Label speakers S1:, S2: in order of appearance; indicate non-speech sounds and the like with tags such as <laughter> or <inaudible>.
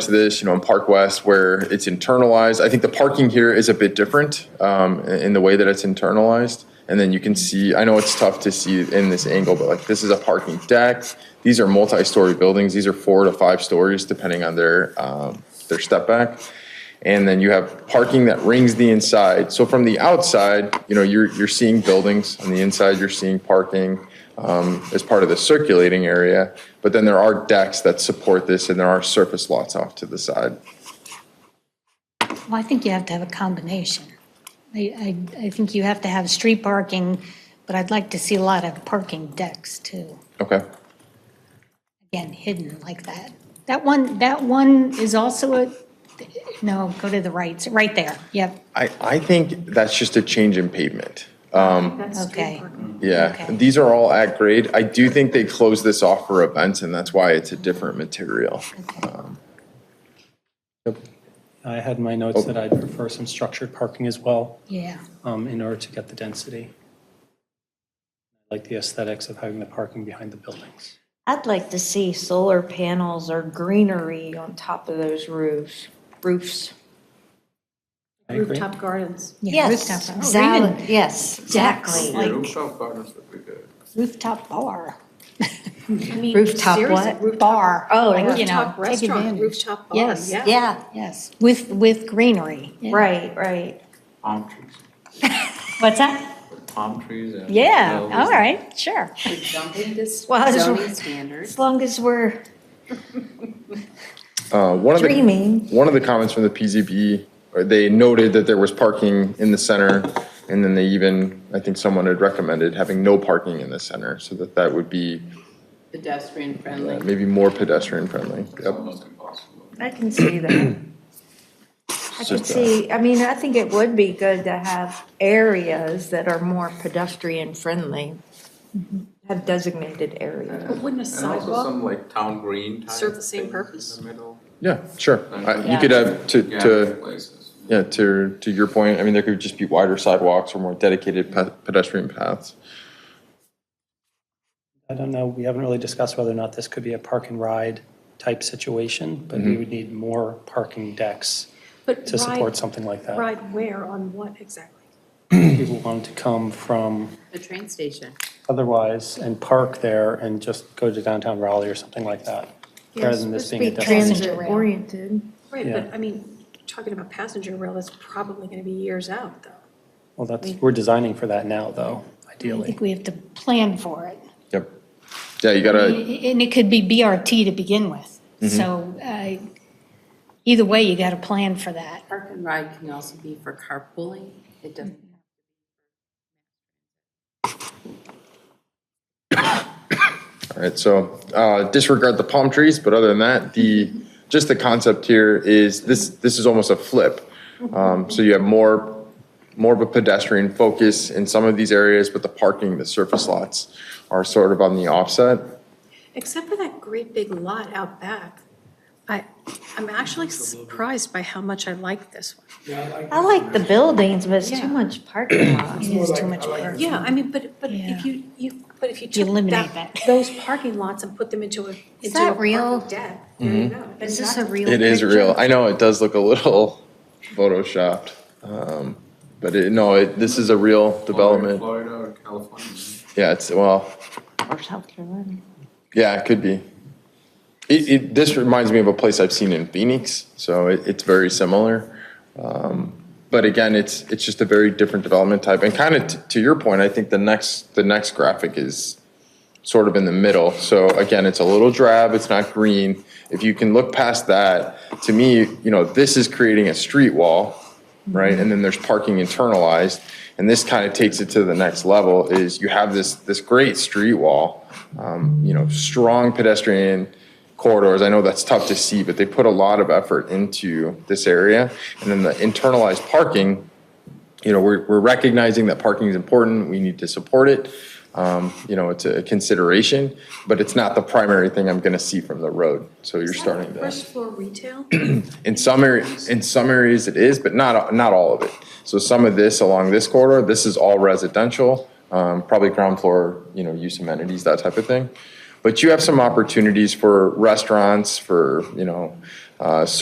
S1: to this, you know, in Park West where it's internalized. I think the parking here is a bit different um, in in the way that it's internalized. And then you can see, I know it's tough to see in this angle, but like this is a parking deck. These are multi-story buildings. These are four to five stories depending on their, um, their step back. And then you have parking that rings the inside. So from the outside, you know, you're, you're seeing buildings. On the inside, you're seeing parking um, as part of the circulating area. But then there are decks that support this and there are surface lots off to the side.
S2: Well, I think you have to have a combination. I, I, I think you have to have street parking, but I'd like to see a lot of parking decks too,
S1: Okay,
S2: again, hidden like that. That one, that one is also a, no, go to the right, right there, yep,
S1: I, I think that's just a change in pavement.
S2: okay.
S1: Yeah,
S2: Okay.
S1: these are all at grade. I do think they close this off for events, and that's why it's a different material. Um,
S3: I had in my notes that I'd prefer some structured parking as well
S2: Yeah,
S3: um, in order to get the density. I Like the aesthetics of having the parking behind the buildings.
S4: I'd like to see solar panels or greenery on top of those roofs, roofs.
S3: I agree.
S5: Rooftop gardens.
S2: yeah,
S4: Yes,
S2: rooftop, or even
S4: exactly, yes, exactly.
S2: like
S6: Rooftop gardens would be good.
S2: rooftop bar,
S5: I mean,
S4: Rooftop
S5: seriously,
S4: what?
S5: rooftop-
S2: bar.
S4: Oh,
S2: like, you know,
S5: Rooftop
S2: take
S5: restaurant,
S2: advantage.
S5: rooftop bar,
S4: Yes,
S5: yeah.
S4: yeah,
S2: Yes, with, with greenery. yeah.
S4: right, right.
S6: Palm trees,
S2: What's that?
S6: palm trees and.
S2: Yeah,
S6: hills.
S2: all right, sure.
S5: Jumping this
S4: Well, I just-
S5: zoning standards.
S4: As long as we're
S1: Uh, One of the,
S4: dreaming.
S1: one of the comments from the PZB, or uh, they noted that there was parking in the center, and then they even, I think someone had recommended having no parking in the center, so that that would be
S7: pedestrian
S1: uh,
S7: friendly.
S1: maybe more pedestrian friendly.
S6: It's
S1: Yep.
S6: almost impossible.
S4: I can see that. I
S1: It's
S4: can
S1: just, uh,
S4: see, I mean, I think it would be good to have areas that are more pedestrian friendly.
S2: Mm-hmm.
S4: Have designated areas.
S5: Wouldn't a
S6: And also
S5: sidewalk
S6: some like town green type.
S5: Serve the same
S6: things
S5: purpose?
S6: In the middle,
S1: Yeah, sure. I- You could have, to,
S6: gathering
S1: to,
S6: places.
S1: yeah, to, to your point, I mean, there could just be wider sidewalks or more dedicated pe- pedestrian paths.
S3: I don't know, we haven't really discussed whether or not this could be a park and ride type situation, but we would need more parking decks
S5: But
S3: to support
S5: ride-
S3: something like that.
S5: Ride where, on what exactly?
S3: People want to come from
S7: The train station.
S3: otherwise and park there and just go to downtown Raleigh or something like that. Rather than this being a destination.
S2: transit rail.
S4: oriented.
S5: Right,
S3: Yeah.
S5: but I mean, talking about passenger rail, that's probably going to be years out, though.
S3: Well, that's, we're designing for that now, though,
S2: I
S3: ideally.
S2: think we have to plan for it.
S1: Yep. Yeah, you gotta,
S2: And it could be BRT to begin with. So I- either way, you got to plan for that.
S7: Park and ride can also be for carpooling. It doesn't.
S1: All right, so uh, disregard the palm trees, but other than that, the, just the concept here is this, this is almost a flip. Um, So you have more, more of a pedestrian focus in some of these areas, but the parking, the surface lots are sort of on the offset.
S5: Except for that great big lot out back. I, I'm actually surprised by how much I like this one.
S4: I like the buildings, but it's
S5: Yeah.
S4: too much parking lot.
S2: It is too much work.
S5: Yeah, I mean, but, but
S2: Yeah.
S5: if you, you, but if you took
S2: eliminate that.
S5: those parking lots and put them into a, into a
S4: that real?
S5: parking deck, there you
S3: Mm-hmm.
S5: go.
S4: Is this a real
S1: It is
S4: picture?
S1: real. I know it does look a little <laughs> photoshopped. um, But it, no, it, this is a real development.
S6: Florida or California.
S1: Yeah, it's, well,
S4: Or South Carolina.
S1: Yeah, it could be. It, it, this reminds me of a place I've seen in Phoenix, so it, it's very similar. Um, But again, it's, it's just a very different development type. And kind of to your point, I think the next, the next graphic is sort of in the middle. So again, it's a little drab, it's not green. If you can look past that, to me, you know, this is creating a street wall, right? And then there's parking internalized. And this kind of takes it to the next level is you have this, this great street wall, um, you know, strong pedestrian corridors. I know that's tough to see, but they put a lot of effort into this area. And then the internalized parking, you know, we're, we're recognizing that parking is important. We need to support it. Um, you know, it's a consideration, but it's not the primary thing I'm going to see from the road. So you're starting to.
S5: First floor retail?
S1: In some areas, in some areas it is, but not, not all of it. So some of this along this corridor, this is all residential, um, probably ground floor, you know, use amenities, that type of thing. But you have some opportunities for restaurants, for, you know, uh,